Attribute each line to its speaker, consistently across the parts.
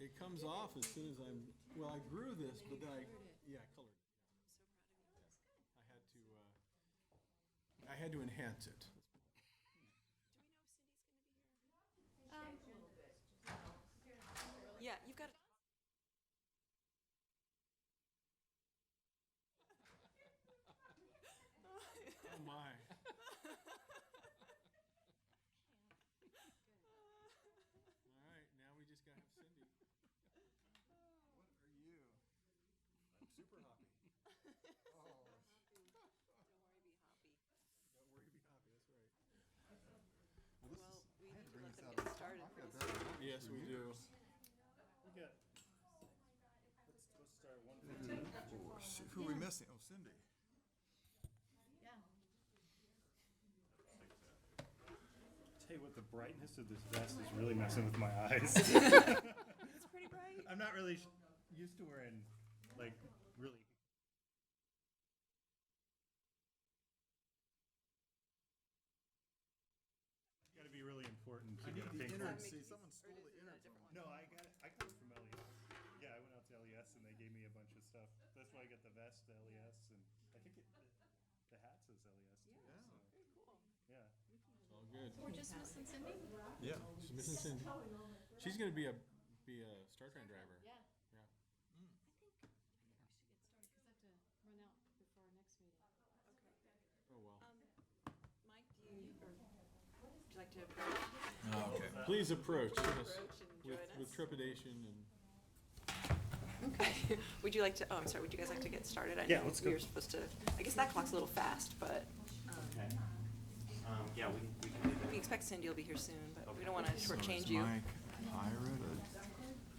Speaker 1: It comes off as soon as I'm, well, I grew this, but then I, yeah, I colored it. I had to, uh, I had to enhance it.
Speaker 2: Yeah, you've got.
Speaker 1: Oh, my. All right, now we just gotta have Cindy. What are you? I'm super hoppy. Oh,
Speaker 2: Don't worry, be happy.
Speaker 1: don't worry, be hoppy, that's right.
Speaker 2: Well, we need to let them get started. pretty soon.
Speaker 1: Yes, we do.
Speaker 3: We got, let's, let's start at one.
Speaker 1: Who are we missing? Oh, Cindy.
Speaker 3: Tell you what, the brightness of this vest is really messing with my eyes.
Speaker 2: It's pretty bright.
Speaker 3: I'm not really sh- used to wearing, like, really. Gotta be really important. to get a pink one.
Speaker 1: See,
Speaker 2: Mickey's.
Speaker 1: someone stole
Speaker 2: Or is it
Speaker 1: the
Speaker 2: a
Speaker 1: innards of
Speaker 2: different one?
Speaker 3: No, I got it, I got it from LES. Yeah, I went out to LES and they gave me a bunch of stuff. That's why I got the vest, the LES, and I think it, the hat says LES E too,
Speaker 1: Yeah.
Speaker 3: so,
Speaker 2: Very cool.
Speaker 1: All good.
Speaker 3: yeah.
Speaker 4: We're just missing Cindy?
Speaker 1: Yeah. She's missing Cindy. She's gonna be a, be a Star Trek driver.
Speaker 4: Yeah.
Speaker 1: Yeah.
Speaker 4: I think we should get started, because I have to run out before our next meeting.
Speaker 1: Oh, well.
Speaker 2: Um, Mike, do you, or would you like to
Speaker 1: Please approach us
Speaker 2: approach and join
Speaker 1: with, with
Speaker 2: us?
Speaker 1: trepidation and.
Speaker 2: Okay. Would you like to, oh, I'm sorry, would you guys like to get started? I
Speaker 3: Yeah,
Speaker 2: know
Speaker 3: let's
Speaker 2: We
Speaker 3: go.
Speaker 2: were supposed to, I guess that clock's a little fast, but
Speaker 5: Okay. Um, yeah, we, we can do
Speaker 2: we expect Cindy will be here soon, but we don't want to shortchange you.
Speaker 6: Mike,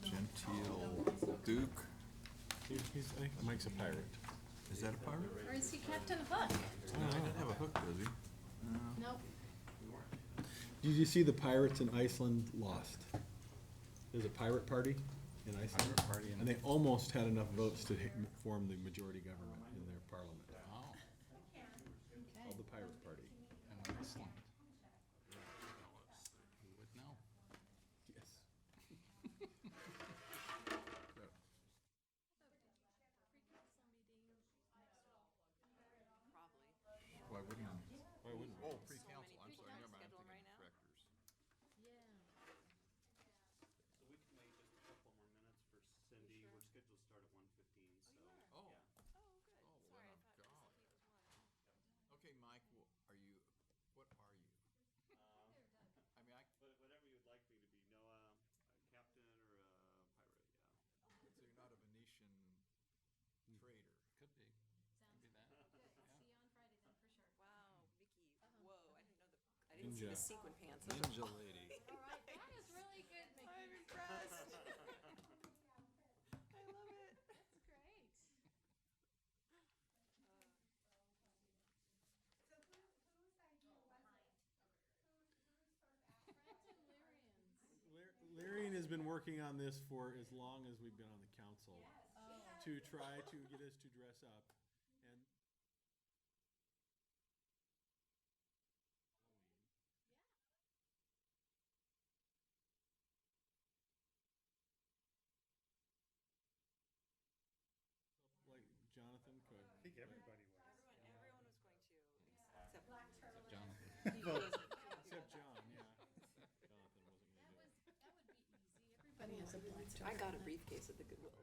Speaker 6: a genteel duke.
Speaker 1: He's, he's, I think Mike's a pirate.
Speaker 6: Is that a pirate?
Speaker 4: Or is he Captain Hook?
Speaker 6: No, he didn't have a hook, does he?
Speaker 4: Nope.
Speaker 1: Did you see the pirates in Iceland lost? There's a pirate party in Iceland.
Speaker 6: Pirate party in-
Speaker 1: And they almost had enough votes to ha- form the majority government in their parliament,
Speaker 6: Wow.
Speaker 1: called the pirate party.
Speaker 6: In Iceland. Who would know?
Speaker 1: Yes.
Speaker 2: Probably.
Speaker 6: Why wouldn't I?
Speaker 1: Why wouldn't we?
Speaker 6: Oh, pre-council, I'm
Speaker 2: people
Speaker 6: sorry,
Speaker 2: on
Speaker 6: never mind, I'm
Speaker 2: schedule
Speaker 6: thinking
Speaker 2: right now.
Speaker 6: directors.
Speaker 4: Yeah.
Speaker 5: So we can wait just a couple more minutes for Cindy. We're scheduled to start at one fifteen, so.
Speaker 6: Oh,
Speaker 5: yeah.
Speaker 2: Oh,
Speaker 6: Oh,
Speaker 2: good. Sorry,
Speaker 6: well,
Speaker 2: I
Speaker 6: I'm
Speaker 2: thought it was something
Speaker 6: golly.
Speaker 2: that was one.
Speaker 6: okay, Mike, wh- are you, what are
Speaker 5: Um,
Speaker 6: you? I mean, I,
Speaker 5: But whatever you'd like me to be, Noah, a captain or a pirate, yeah.
Speaker 6: so you're not a Venetian trader.
Speaker 7: Could be. Could be that.
Speaker 4: See you on Friday then, for sure.
Speaker 2: Wow, Vicky, whoa, I didn't know the, I didn't see the
Speaker 1: Ninja.
Speaker 2: sequin pants. Those are
Speaker 6: Ninja lady.
Speaker 4: All right, that is really good,
Speaker 2: I'm
Speaker 4: Mickey.
Speaker 2: impressed. I love it.
Speaker 4: That's great. Friends and Lyrians.
Speaker 1: Lar- Larian has been working on this for as long as we've been on the council to try to get us to dress up. And like Jonathan
Speaker 3: I
Speaker 1: could.
Speaker 3: think everybody was.
Speaker 2: Everyone, everyone was going to, except
Speaker 7: Jonathan.
Speaker 1: Except John, yeah. Jonathan wasn't gonna
Speaker 4: That
Speaker 1: do it.
Speaker 4: was, that would be easy. Everybody has a black.
Speaker 2: I got a briefcase at the Goodwill.